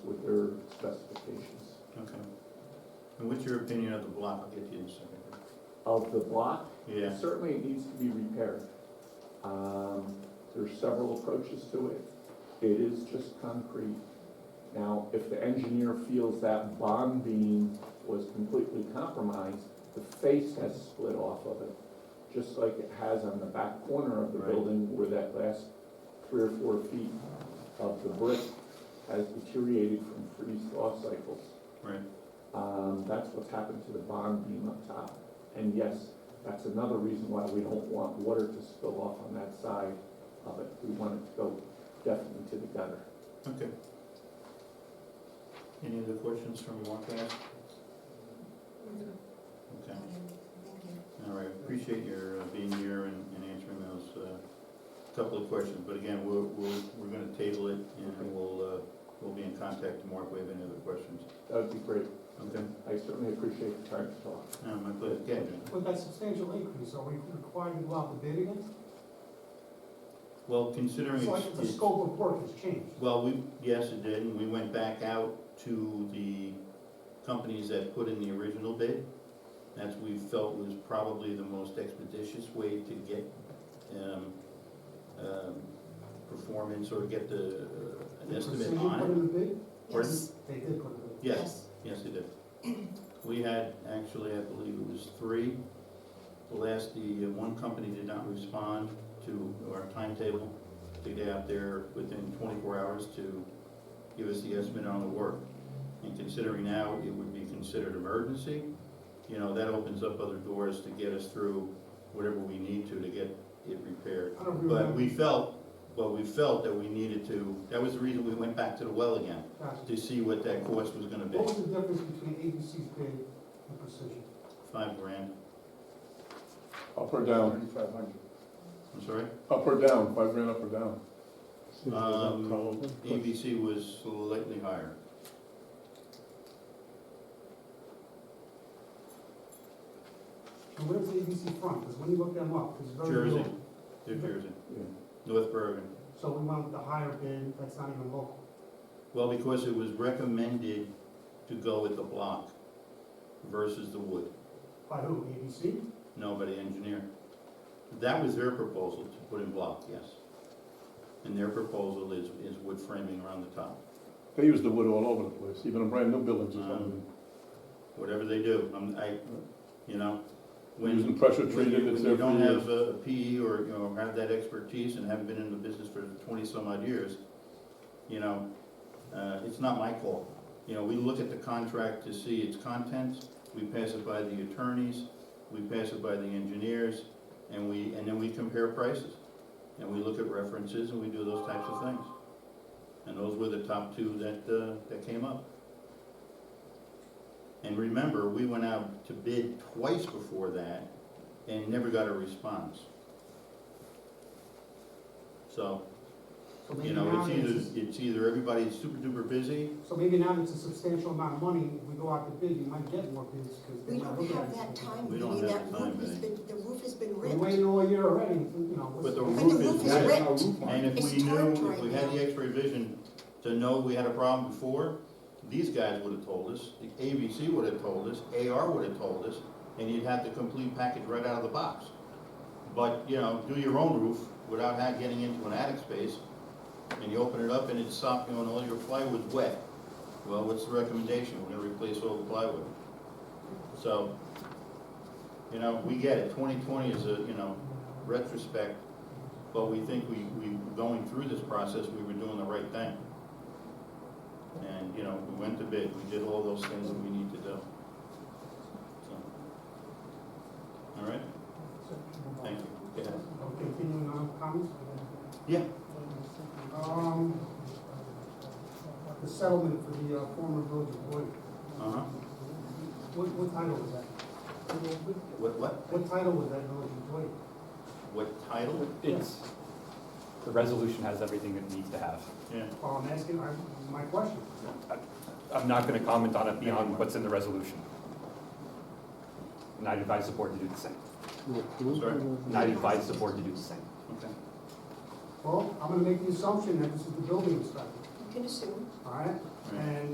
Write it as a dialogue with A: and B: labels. A: specifications.
B: Okay. And what's your opinion of the block? I'll get to you in a second.
A: Of the block,
B: Yeah,
A: certainly it needs to be repaired. Um, there's several approaches to it. It is just concrete. Now, if the engineer feels that bond beam was completely compromised, the face has split off of it, just like it has on the back corner of the
B: Right.
A: building where that last three or four feet of the brick has deteriorated from freeze-thaw cycles.
B: right.
A: Um, that's what's happened to the bond beam up top. And yes, that's another reason why we don't want water to spill off on that side of it. We want it to go definitely to the gutter.
B: Okay. Any other questions from Marquez? Okay, all right, appreciate your uh, being here and and answering those uh, couple of questions. But again, we're, we're, we're gonna table it
A: Okay.
B: and we'll, uh, we'll be in contact tomorrow if we have any other questions.
A: That would be great.
B: Okay,
A: I certainly appreciate the time to talk.
B: no, Um, my pleasure. Yeah, John.
C: With that substantial increase, are we required to go out to bid again?
B: Well, considering
C: It's
B: it's,
C: like the
B: it's-
C: scope of work has changed.
B: well, we, yes, it did, and we went back out to the companies that put in the original bid. That's we felt was probably the most expeditious way to get, um, um, performance or get the, uh, an estimate
C: Precision put
B: on it.
C: in the bid?
B: Pardon?
C: They did put it in.
B: Yes, yes, it did. We had, actually, I believe it was three. The last, the, uh, one company did not respond to our timetable to get out there within twenty-four hours to give us the estimate on the work. And considering now it would be considered emergency, you know, that opens up other doors to get us through whatever we need to to get it repaired.
C: I don't agree with
B: But
C: that.
B: we felt, but we felt that we needed to, that was the reason we went back to the well again
C: Gotcha.
B: to see what that cost was gonna be,
C: What was the difference between ABC's bid and Precision?
B: five grand,
D: Up or down,
E: Thirty-five hundred.
B: I'm sorry.
D: up or down, five grand up or down?
B: Um, ABC was slightly higher.
C: And where's ABC from? Because when you look them up, it's very
B: Jersey,
C: low.
B: New Jersey,
A: Yeah.
B: North Bergen.
C: So we went with the higher bid, that's not even local.
B: Well, because it was recommended to go with the block versus the wood,
C: By who, ABC?
B: no, by the engineer. That was their proposal to put in block, yes. And their proposal is, is wood framing around the top.
D: They use the wood all over the place, even in brand new buildings or
B: Um,
D: something.
B: Whatever they do, I'm, I, you know, when.
D: Using pressure
B: When you,
D: treated,
B: when
D: it's
B: you
D: there for
B: don't
D: years.
B: have a a PE or, you know, have that expertise and haven't been in the business for twenty-some odd years, you know, uh, it's not my call. You know, we look at the contract to see its contents, we pass it by the attorneys, we pass it by the engineers, and we, and then we compare prices. And we look at references and we do those types of things. And those were the top two that, uh, that came up. And remember, we went out to bid twice before that, and never got a response. So,
C: So maybe
B: you know,
C: now
B: it's
C: there's-
B: either, it's either everybody's super duper busy,
C: So maybe now it's a substantial amount of money, if we go out to bid, you might get more bids because they're
F: We
C: not
F: don't
C: looking at
F: have that
C: it.
F: time,
B: We
F: I
B: don't
F: mean,
B: have
F: that
B: the time,
F: roof has
B: Vinnie.
F: been, the roof has been
C: We're
F: ripped.
C: waiting all year already, you know.
B: but the
C: what's-
F: But the
B: roof is
F: roof is
B: wet.
F: ripped.
B: And if
F: It's
B: we knew,
F: torn
B: if
F: right
B: we had
F: now.
B: the x-ray vision to know we had a problem before, these guys would have told us, the ABC would have told us, AR would have told us, and you'd have the complete package right out of the box. But, you know, do your own roof without ha- getting into an attic space, and you open it up and it's soft, you know, and all your plywood's wet. Well, what's the recommendation? We're gonna replace all the plywood. So, you know, we get it, twenty twenty is a, you know, retrospect, but we think we, we, going through this process, we were doing the right thing. And, you know, we went to bid, we did all those things that we need to do. So, All right, thank you. Go ahead.
C: Okay, continuing on comments?
B: Yeah.
C: Um, the settlement for the uh, former village of Boyd,
B: Uh-huh,
C: what, what title was that?
B: what, what,
C: What title was that village of Boyd?
B: what title?
G: It's, the resolution has everything it needs to have.
B: Yeah,
C: Well, I'm asking, I, my question.
G: I'm not gonna comment on it beyond what's in the resolution. And I'd advise the board to do the same.
B: sorry,
G: And I'd advise the board to do the same.
B: okay.
C: Well, I'm gonna make the assumption that this is the building inspector,
F: You can assume.
C: all right?
B: Right.
C: And